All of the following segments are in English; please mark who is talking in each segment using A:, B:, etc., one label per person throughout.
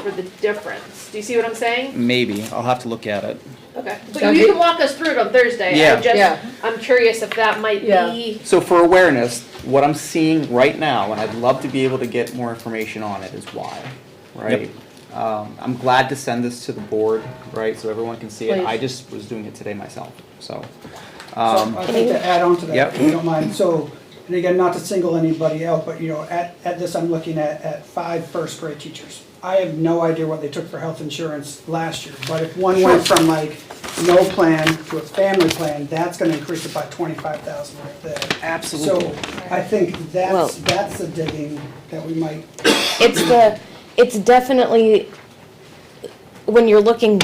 A: for the difference. Do you see what I'm saying?
B: Maybe, I'll have to look at it.
A: Okay, but
C: Okay.
A: you can walk us through it on Thursday.
B: Yeah.
A: I
C: Yeah.
A: just, I'm curious if that might
C: Yeah.
A: be,
B: So for awareness, what I'm seeing right now, and I'd love to be able to get more information on it, is why, right? Um, I'm glad to send this to the board, right, so everyone can see it. I
C: Please.
B: just was doing it today myself, so.
D: So
B: um,
D: I'd like to add on to that, if
B: Yep.
D: you don't mind. So, and again, not to single anybody out, but you know, at, at this, I'm looking at, at five first grade teachers. I have no idea what they took for health insurance last year, but if one went from like no plan to a family plan, that's gonna increase it by twenty-five thousand right there.
B: Absolutely.
D: So I think
E: Well-
D: that's, that's the digging that we might,
E: It's the, it's definitely, when you're looking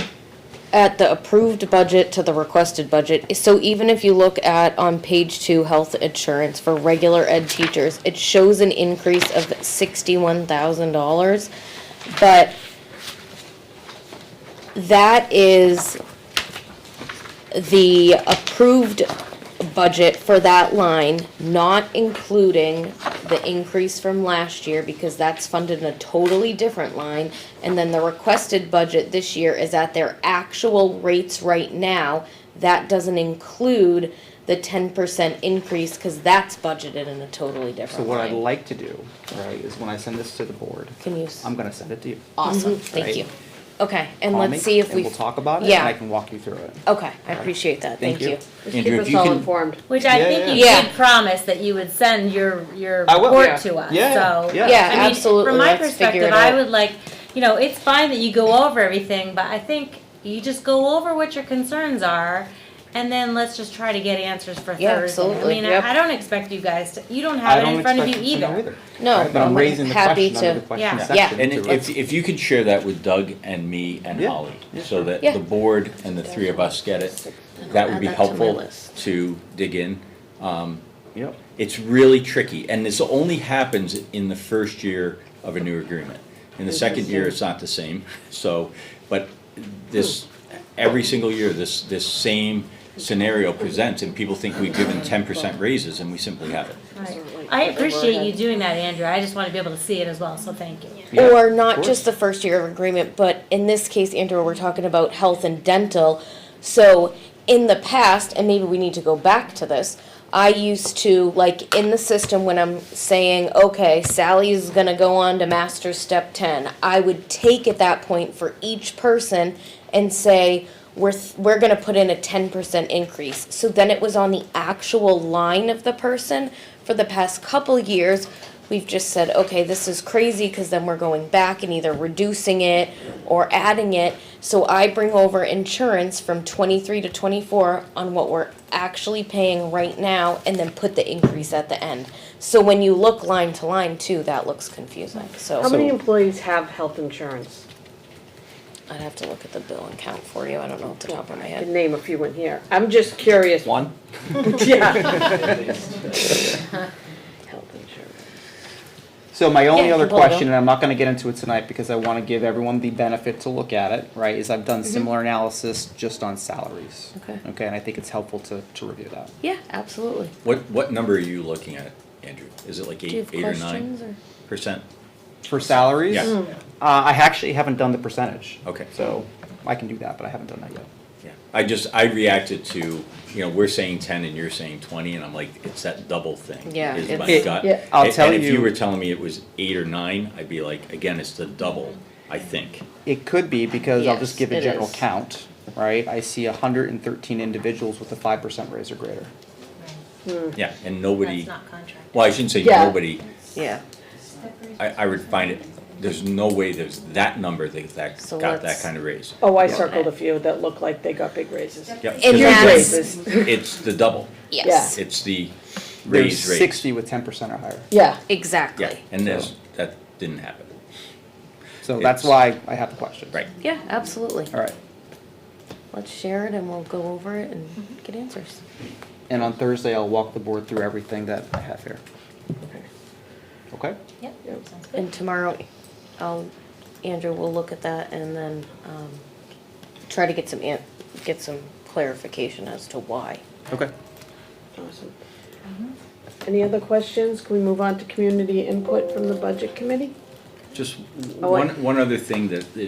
E: at the approved budget to the requested budget, so even if you look at on page two, health insurance for regular ed teachers, it shows an increase of sixty-one thousand dollars, but that is the approved budget for that line, not including the increase from last year, because that's funded in a totally different line. And then the requested budget this year is at their actual rates right now. That doesn't include the ten percent increase, cause that's budgeted in a totally
B: So
E: different
B: what I'd
E: line.
B: like to do, right, is when I send this to the board,
E: Can you, s-
B: I'm gonna send it to you.
E: awesome,
B: Mm-hmm. right.
E: thank you. Okay, and
B: Call
E: let's
B: me,
E: see if
B: and
E: we.
B: we'll talk about it, and
E: Yeah.
B: I can walk you through it.
E: Okay, I appreciate that,
B: Thank
E: thank
B: you.
E: you.
A: just
F: Andrew,
A: keep
F: if
A: us
F: you
A: all
F: can-
A: informed.
G: Which I
B: Yeah,
G: think you
E: yeah. Yeah.
G: did promise that you would send your, your
B: I will.
A: Yeah.
G: report to us, so.
B: Yeah, yeah.
E: Yeah,
G: I mean,
E: absolutely.
G: From my
E: Let's figure it
G: perspective, I
E: out.
G: would like, you know, it's fine that you go over everything, but I think you just go over what your concerns are, and then let's just try to get answers for Thursday.
E: Yeah, absolutely.
G: I mean,
E: Yep.
G: I- I don't expect you guys to, you don't
B: I
G: have it
B: don't
G: in front of you
B: expect to know
G: either.
E: No,
B: Right, But I'm
E: I'm
B: raising the
E: happy
B: question under
E: to-
B: the question
G: Yeah.
B: section.
F: And
B: to
F: if,
B: it.
F: if you could share that with Doug and me and
B: Yeah,
F: Holly,
B: yeah,
F: so that
E: Yeah.
F: the board and the three of us get it,
E: I'll
F: that would
E: add
F: be
E: that to my
F: helpful
E: list.
F: to dig in. Um,
B: Yep.
F: It's really tricky, and this only happens in the first year of a new agreement. In the second year, it's not the same, so, but this,
E: Hmm.
F: every single year, this, this same scenario presents, and people think we've given ten percent raises, and we simply haven't.
G: Right. I appreciate you doing that, Andrew, I just wanna be able to see it as well, so thank you.
B: Yeah,
E: Or
B: of
E: not
B: course.
E: just the first year of agreement, but in this case, Andrew, we're talking about health and dental. So in the past, and maybe we need to go back to this, I used to, like, in the system when I'm saying, okay, Sally is gonna go on to master's step ten, I would take at that point for each person and say, we're, th- we're gonna put in a ten percent increase. So then it was on the actual line of the person. For the past couple years, we've just said, okay, this is crazy, cause then we're going back and either reducing it or adding it. So I bring over insurance from twenty-three to twenty-four on what we're actually paying right now and then put the increase at the end. So when you look line to line too, that looks confusing,
A: How
E: so
A: many employees have health insurance?
E: I'd have to look at the bill and count for you, I don't know off the top of my
A: I
E: head.
A: can name a few in here. I'm just curious.
B: One,
A: Yeah. Health insurance.
B: So my only
E: Yeah,
B: other
E: you can pull it
B: question,
E: up.
B: and I'm not gonna get into it tonight because I wanna give everyone the benefit to look at it, right, is I've done similar analysis just on salaries.
E: Mm-hmm. Okay.
B: Okay, and I think it's helpful to, to review that.
E: Yeah, absolutely.
F: What, what number are you looking at, Andrew? Is it like
E: Do you
F: eight,
E: have
F: eight or nine
E: questions or?
F: percent?
B: For salaries?
F: Yeah.
B: Uh,
F: Mm.
B: I actually haven't done the percentage.
F: Okay.
B: So I can do that, but I haven't done that yet.
F: Yeah, I just, I reacted to, you know, we're saying ten and you're saying twenty, and I'm like, it's that double thing.
E: Yeah,
F: Is my
E: it's-
F: gut.
C: Yeah.
B: I'll
F: And-
B: tell
F: And if
B: you-
F: you were telling me it was eight or nine, I'd be like, again, it's the double, I think.
B: It could be because I'll just
E: Yes,
B: give a
E: it
B: general
E: is.
B: count, right? I see hundred and thirteen individuals with a five percent raise or greater. Mm.
F: Yeah, and nobody,
G: That's not contract.
F: well, I shouldn't say
C: Yeah.
F: nobody,
E: Yeah,
F: I, I would find it, there's no way there's that number that, that
E: So
F: got that
E: let's-
F: kind of raise.
A: Oh, I
F: Yeah.
A: circled a few that looked like they got big raises.
F: Yeah,
E: And
A: Huge
E: that's-
F: because
A: raises.
F: it's the double,
E: yes,
F: it's the
B: There's
F: raise rate.
B: sixty with ten percent or higher.
C: Yeah.
F: Yeah,
E: exactly.
F: and there's, that didn't happen,
B: So that's
F: It's-
B: why I have the question.
F: right.
E: Yeah, absolutely.
B: All right.
E: Let's share it and we'll go over it and get answers.
B: And on Thursday, I'll walk the board through everything that I have here. Okay?
G: Yep,
A: Yep.
G: sounds good.
E: And tomorrow, I'll, Andrew will look at that and then, um, try to get some an, get some clarification as to why.
B: Okay.
A: Awesome. Any other questions? Can we move on to community input from the budget committee?
F: Just
A: Oh, I-
F: one, one other thing that is